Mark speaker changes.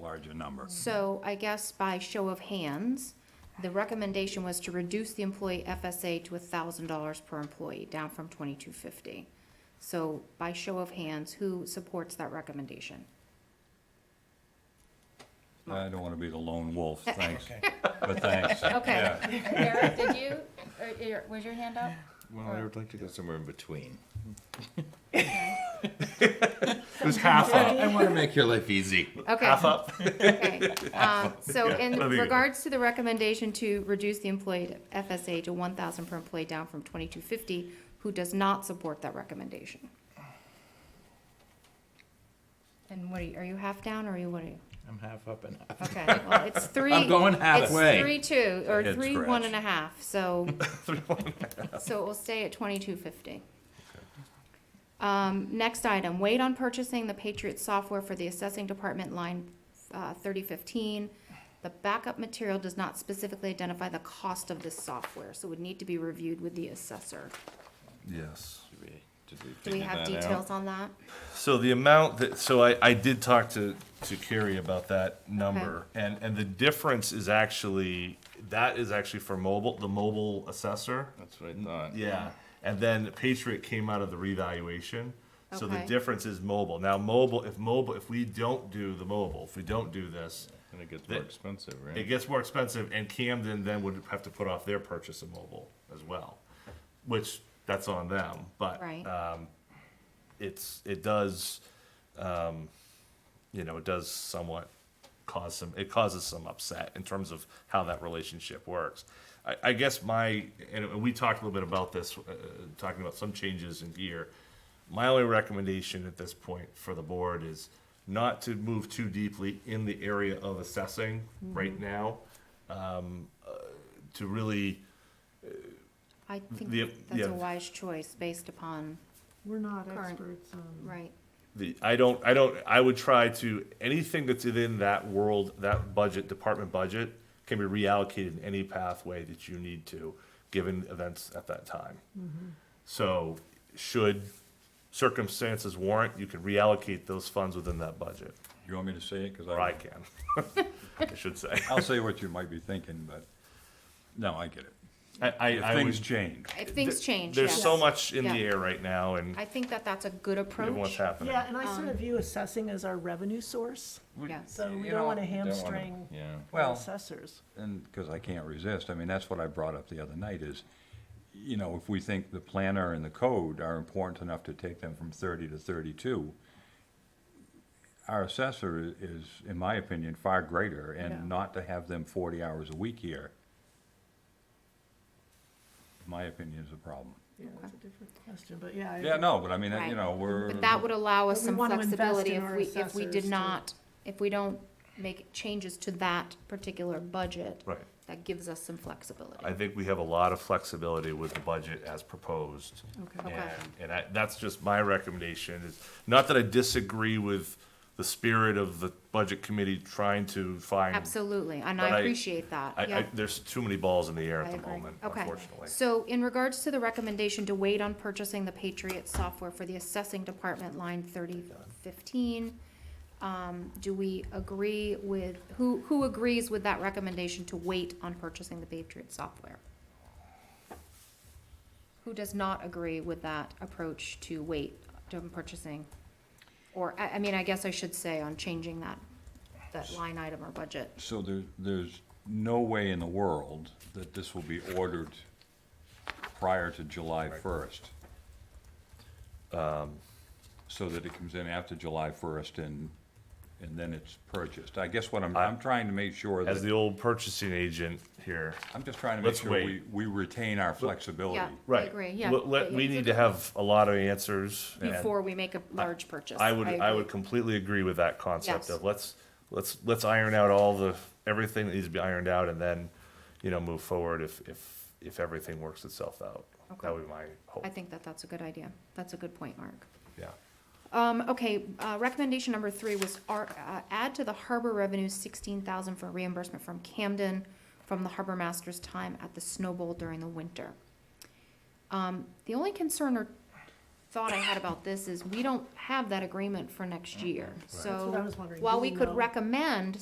Speaker 1: larger number.
Speaker 2: So I guess by show of hands, the recommendation was to reduce the employee FSA to thousand dollars per employee, down from twenty-two fifty. So by show of hands, who supports that recommendation?
Speaker 1: I don't want to be the lone wolf, thanks, but thanks.
Speaker 2: Okay.
Speaker 1: Yeah.
Speaker 3: Eric, did you, or your- was your hand up?
Speaker 4: Well, I would like to go somewhere in between.
Speaker 1: It was half up.
Speaker 4: I want to make your life easy.
Speaker 2: Okay.
Speaker 4: up.
Speaker 2: Okay, um, so in
Speaker 1: there you go.
Speaker 2: regards to the recommendation to reduce the employee FSA to one thousand per employee down from twenty-two fifty, who does not support that recommendation? And what are you, are you half down or are you, what are you?
Speaker 4: I'm half up and half.
Speaker 2: Okay, well, it's three.
Speaker 4: I'm going halfway.
Speaker 2: It's three, two, or
Speaker 1: Head
Speaker 2: three, one
Speaker 1: scratch.
Speaker 2: and a half, so. So it will stay at twenty-two fifty. Um, next item, wait on purchasing the Patriot software for the assessing department line, uh, thirty fifteen. The backup material does not specifically identify the cost of this software, so would need to be reviewed with the assessor.
Speaker 1: Yes.
Speaker 2: Do we have details on that?
Speaker 5: So the amount that, so I, I did talk to, to Carrie about that number, and, and the difference is actually, that is actually for mobile, the mobile assessor.
Speaker 4: That's what I thought.
Speaker 5: Yeah, and then Patriot came out of the revaluation, so the
Speaker 2: Okay.
Speaker 5: difference is mobile. Now, mobile, if mobile, if we don't do the mobile, if we don't do this,
Speaker 4: And it gets
Speaker 5: The-
Speaker 4: more expensive, right?
Speaker 5: it gets more expensive, and Camden then would have to put off their purchase of mobile as well, which, that's on them, but,
Speaker 2: Right.
Speaker 5: um, it's, it does, um, you know, it does somewhat cause some, it causes some upset in terms of how that relationship works. I, I guess my, and we talked a little bit about this, uh, talking about some changes in gear. My only recommendation at this point for the board is not to move too deeply in the area of assessing right now. Um, uh, to really,
Speaker 2: I
Speaker 5: The-
Speaker 2: think that's
Speaker 5: yeah.
Speaker 2: a wise choice based upon,
Speaker 6: We're not
Speaker 2: Current.
Speaker 6: experts on.
Speaker 2: right,
Speaker 5: the I don't I don't I would try to anything that's within that world that budget department budget can be reallocated in any pathway that you need to given events at that time.
Speaker 2: Mm-hmm.
Speaker 5: So should circumstances warrant, you can reallocate those funds within that budget.
Speaker 1: You want me to say it? 'Cause
Speaker 5: Or I
Speaker 1: I,
Speaker 5: can. I should say.
Speaker 1: I'll say what you might be thinking, but, no, I get it.
Speaker 5: I, I,
Speaker 1: If
Speaker 5: I
Speaker 1: things
Speaker 5: would-
Speaker 1: change.
Speaker 2: if things change,
Speaker 5: There's
Speaker 2: yes.
Speaker 5: so much in the
Speaker 2: Yeah.
Speaker 5: air right now and
Speaker 2: I think that that's a good
Speaker 5: given what's
Speaker 2: approach,
Speaker 5: happening.
Speaker 6: Yeah, and I sort of view assessing as our revenue source,
Speaker 2: yes.
Speaker 6: so we
Speaker 1: You
Speaker 6: don't
Speaker 1: know,
Speaker 6: want to
Speaker 1: you don't wanna-
Speaker 6: hamstring
Speaker 4: Yeah.
Speaker 1: Well-
Speaker 6: assessors.
Speaker 1: and because I can't resist, I mean, that's what I brought up the other night is, you know, if we think the planner and the code are important enough to take them from thirty to thirty-two, our assessor i- is, in my opinion, far greater,
Speaker 6: Yeah.
Speaker 1: and not to have them forty hours a week here, in my opinion, is a problem.
Speaker 6: Yeah, that's a different question, but yeah. I
Speaker 1: Yeah,
Speaker 6: agree.
Speaker 1: no, but I mean, you
Speaker 2: Right.
Speaker 1: know, we're.
Speaker 2: But that would allow us
Speaker 6: But we
Speaker 2: some
Speaker 6: want to invest
Speaker 2: flexibility
Speaker 6: in
Speaker 2: if
Speaker 6: our
Speaker 2: we, if we
Speaker 6: assessors
Speaker 2: did
Speaker 6: to-
Speaker 2: not, if we don't make changes to that particular budget.
Speaker 5: Right.
Speaker 2: That gives us some flexibility.
Speaker 5: I think we have a lot of flexibility with the budget as proposed.
Speaker 6: Okay.
Speaker 2: Okay.
Speaker 5: And, and I, that's just my recommendation, is, not that I disagree with the spirit of the budget committee trying to find.
Speaker 2: Absolutely, and
Speaker 5: But I-
Speaker 2: I appreciate that,
Speaker 5: I,
Speaker 2: yeah.
Speaker 5: I, there's too many balls in the air
Speaker 2: I
Speaker 5: at the
Speaker 2: agree.
Speaker 5: moment,
Speaker 2: Okay.
Speaker 5: unfortunately.
Speaker 2: So in regards to the recommendation to wait on purchasing the Patriot software for the assessing department line thirty fifteen, um, do we agree with, who, who agrees with that recommendation to wait on purchasing the Patriot software? Who does not agree with that approach to wait on purchasing? Or, I, I mean, I guess I should say on changing that, that line item or budget.
Speaker 1: So there, there's no way in the world that this will be ordered prior to July first. Um, So that it comes in after July first and, and then it's purchased. I guess what I'm, I'm trying to make sure
Speaker 5: As the
Speaker 1: that,
Speaker 5: old purchasing agent here.
Speaker 1: I'm just trying to make
Speaker 5: let's
Speaker 1: sure
Speaker 5: wait.
Speaker 1: we, we retain our flexibility.
Speaker 2: Yeah. I
Speaker 5: Right.
Speaker 2: agree, yeah.
Speaker 5: Let- let-
Speaker 2: Yeah,
Speaker 5: we
Speaker 2: it's a
Speaker 5: need
Speaker 2: good
Speaker 5: to have a lot of answers. and
Speaker 2: before we make a large purchase.
Speaker 5: I would, I would
Speaker 2: agree.
Speaker 5: completely agree with that
Speaker 2: Yes.
Speaker 5: concept of let's, let's, let's iron out all the, everything that needs to be ironed out and then, you know, move forward if, if, if everything works itself out. That
Speaker 2: Okay.
Speaker 5: would be my hope,
Speaker 2: I think that that's a good idea. That's a good point, Mark.
Speaker 5: yeah.
Speaker 2: Um, okay, uh, recommendation number three was our, uh, add to the harbor revenue sixteen thousand for reimbursement from Camden from the harbor master's time at the Snow Bowl during the winter. Um, the only concern or thought I had about this is, we don't have that agreement for next year.
Speaker 6: That's what I
Speaker 2: So,
Speaker 6: was wondering.
Speaker 2: while
Speaker 6: Do
Speaker 2: we
Speaker 6: we
Speaker 2: could
Speaker 6: know?
Speaker 2: recommend